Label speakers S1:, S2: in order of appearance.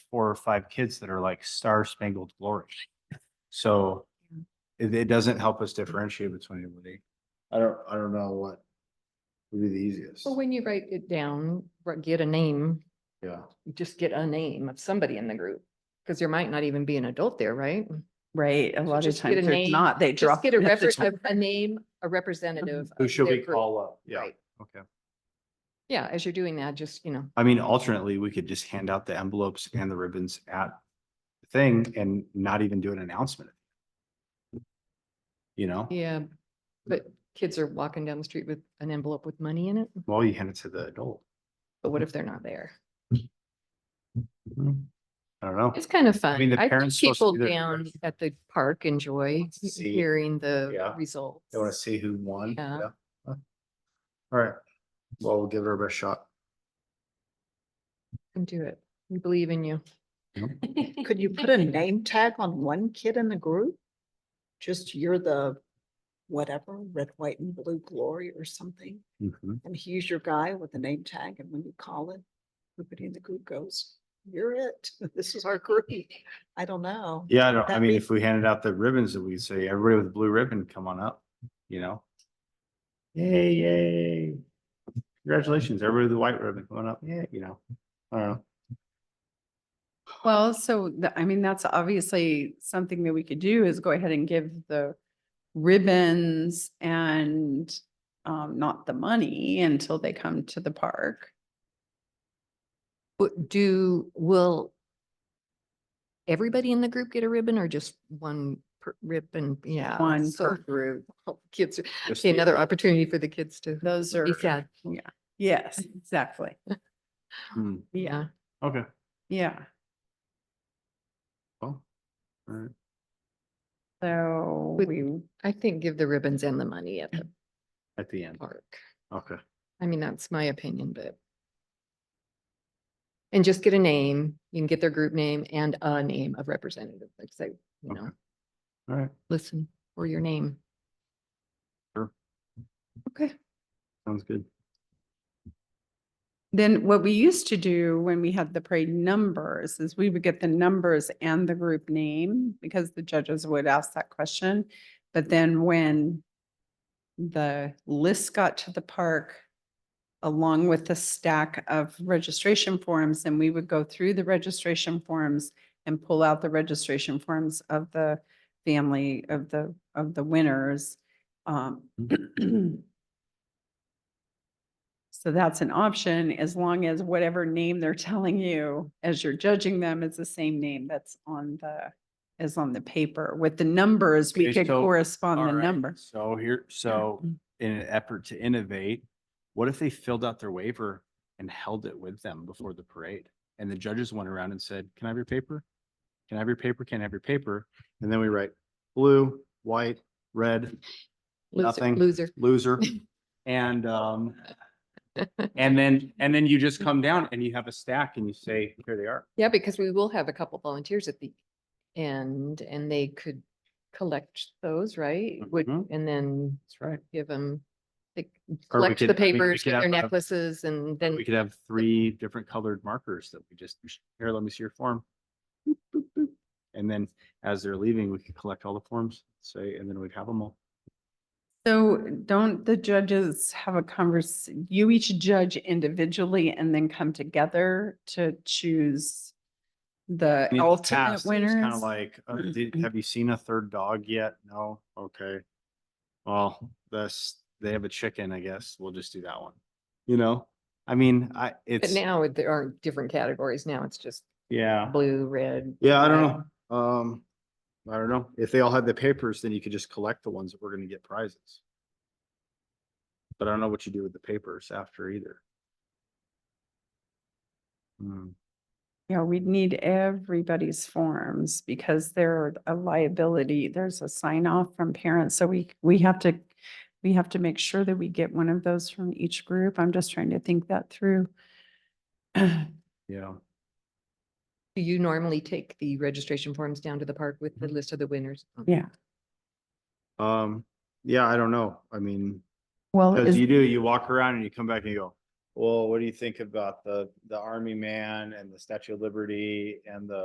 S1: four or five kids that are like star spangled glory. So it, it doesn't help us differentiate between anybody.
S2: I don't, I don't know what would be the easiest.
S3: Well, when you write it down, r- get a name,
S2: Yeah,
S3: just get a name of somebody in the group. Because there might not even be an adult there, right?
S4: Right, a lot of
S3: just get a
S4: times there's
S3: name,
S4: not, they
S3: Just
S4: drop.
S3: get a
S4: it at the
S3: refer-
S4: top.
S3: a- a name, a representative.
S2: who
S3: of
S2: should
S3: their
S2: we
S3: group.
S2: call up? Yeah,
S3: Right.
S1: Okay.
S3: Yeah, as you're doing that, just, you know,
S1: I mean, alternately, we could just hand out the envelopes and the ribbons at the thing and not even do an announcement. You know,
S3: yeah, but kids are walking down the street with an envelope with money in it,
S1: well, you hand it to the adult.
S3: but what if they're not there?
S1: I don't know.
S3: It's kind of fun.
S1: mean, the
S3: I think
S1: parents supposed to
S3: people
S1: do their
S3: down
S1: research.
S3: at the park enjoy
S1: to see-
S3: hearing the
S2: yeah,
S3: results.
S2: they wanna see who won.
S3: Yeah.
S2: All right, well, we'll give it our best shot.
S3: Come do it. We believe in you.
S5: Could you put a name tag on one kid in the group? Just you're the whatever, red, white and blue glory or something,
S1: Mhm.
S5: and he's your guy with the name tag, and when you call it, everybody in the group goes, you're it, this is our group. I don't know.
S1: Yeah, I don't, I
S5: That'd
S1: mean,
S5: be-
S1: if we handed out the ribbons, we would say, everybody with a blue ribbon, come on up, you know? Yay, yay. Congratulations, everybody with a white ribbon, come on up, yeah, you know, I don't know.
S4: Well, so, the- I mean, that's obviously something that we could do is go ahead and give the ribbons and um, not the money until they come to the park.
S3: But do, will everybody in the group get a ribbon or just one per ribbon? Yeah.
S4: One
S3: Uh, so-
S4: per group.
S3: Kids,
S1: Just
S3: see
S1: the-
S3: another opportunity for the kids to
S4: Those are,
S3: be sad.
S4: yes, exactly.
S1: Hmm,
S3: Yeah.
S1: Okay,
S4: Yeah.
S1: well, all right.
S4: So
S3: Would-
S4: we,
S3: I think give the ribbons and the money at the
S1: at the end,
S3: park.
S1: okay.
S3: I mean, that's my opinion, but. And just get a name. You can get their group name and a name of representative, like say, you
S1: Okay.
S3: know,
S1: All right,
S3: listen for your name.
S4: okay.
S1: sounds good.
S4: Then what we used to do when we had the parade numbers is we would get the numbers and the group name because the judges would ask that question. But then when the list got to the park along with the stack of registration forms, and we would go through the registration forms and pull out the registration forms of the family of the, of the winners. Um,
S1: Hmm.
S4: So that's an option as long as whatever name they're telling you as you're judging them is the same name that's on the, is on the paper. With the numbers, we
S1: Okay,
S4: could
S1: so-
S4: correspond
S1: All
S4: the
S1: right,
S4: numbers.
S1: So here, so in an effort to innovate, what if they filled out their waiver and held it with them before the parade? And the judges went around and said, can I have your paper? Can I have your paper? Can I have your paper? And then we write blue, white, red,
S3: Loser,
S1: Nothing.
S3: loser.
S1: loser. And, um, and then, and then you just come down and you have a stack and you say, here they are.
S3: Yeah, because we will have a couple volunteers at the end and they could collect those, right? Would,
S1: Mhm.
S3: and then
S1: That's right.
S3: give them, they
S1: Or we
S3: collect
S1: could-
S3: the
S1: I mean, we
S3: papers,
S1: could
S3: get their
S1: have a-
S3: necklaces and then
S1: We could have three different colored markers that we just, here, let me see your form. Boop, boop, boop. And then as they're leaving, we could collect all the forms, say, and then we'd have them all.
S4: So don't the judges have a convers, you each judge individually and then come together to choose the
S1: I mean, in the
S4: ultimate
S1: past, it was
S4: winners?
S1: Kind of like, uh, did, have you seen a third dog yet? No? Okay. Well, that's, they have a chicken, I guess. We'll just do that one. You know, I mean, I,
S3: But
S1: it's,
S3: now there are different categories. Now it's just
S1: yeah.
S3: blue, red.
S2: Yeah, I
S3: white.
S2: don't know. Um, I don't know. If they all had the papers, then you could just collect the ones that were gonna get prizes.
S1: But I don't know what you do with the papers after either. Hmm.
S4: Yeah, we'd need everybody's forms because they're a liability. There's a sign off from parents. So we, we have to, we have to make sure that we get one of those from each group. I'm just trying to think that through.
S1: Yeah.
S3: Do you normally take the registration forms down to the park with
S1: Mm-hmm.
S3: the list of the winners?
S4: Yeah.
S2: Um, yeah, I don't know. I mean,
S4: Well,
S2: cause
S4: is-
S2: you do, you walk around and you come back and you go,
S1: well, what do you think about the, the army man and the Statue of Liberty and the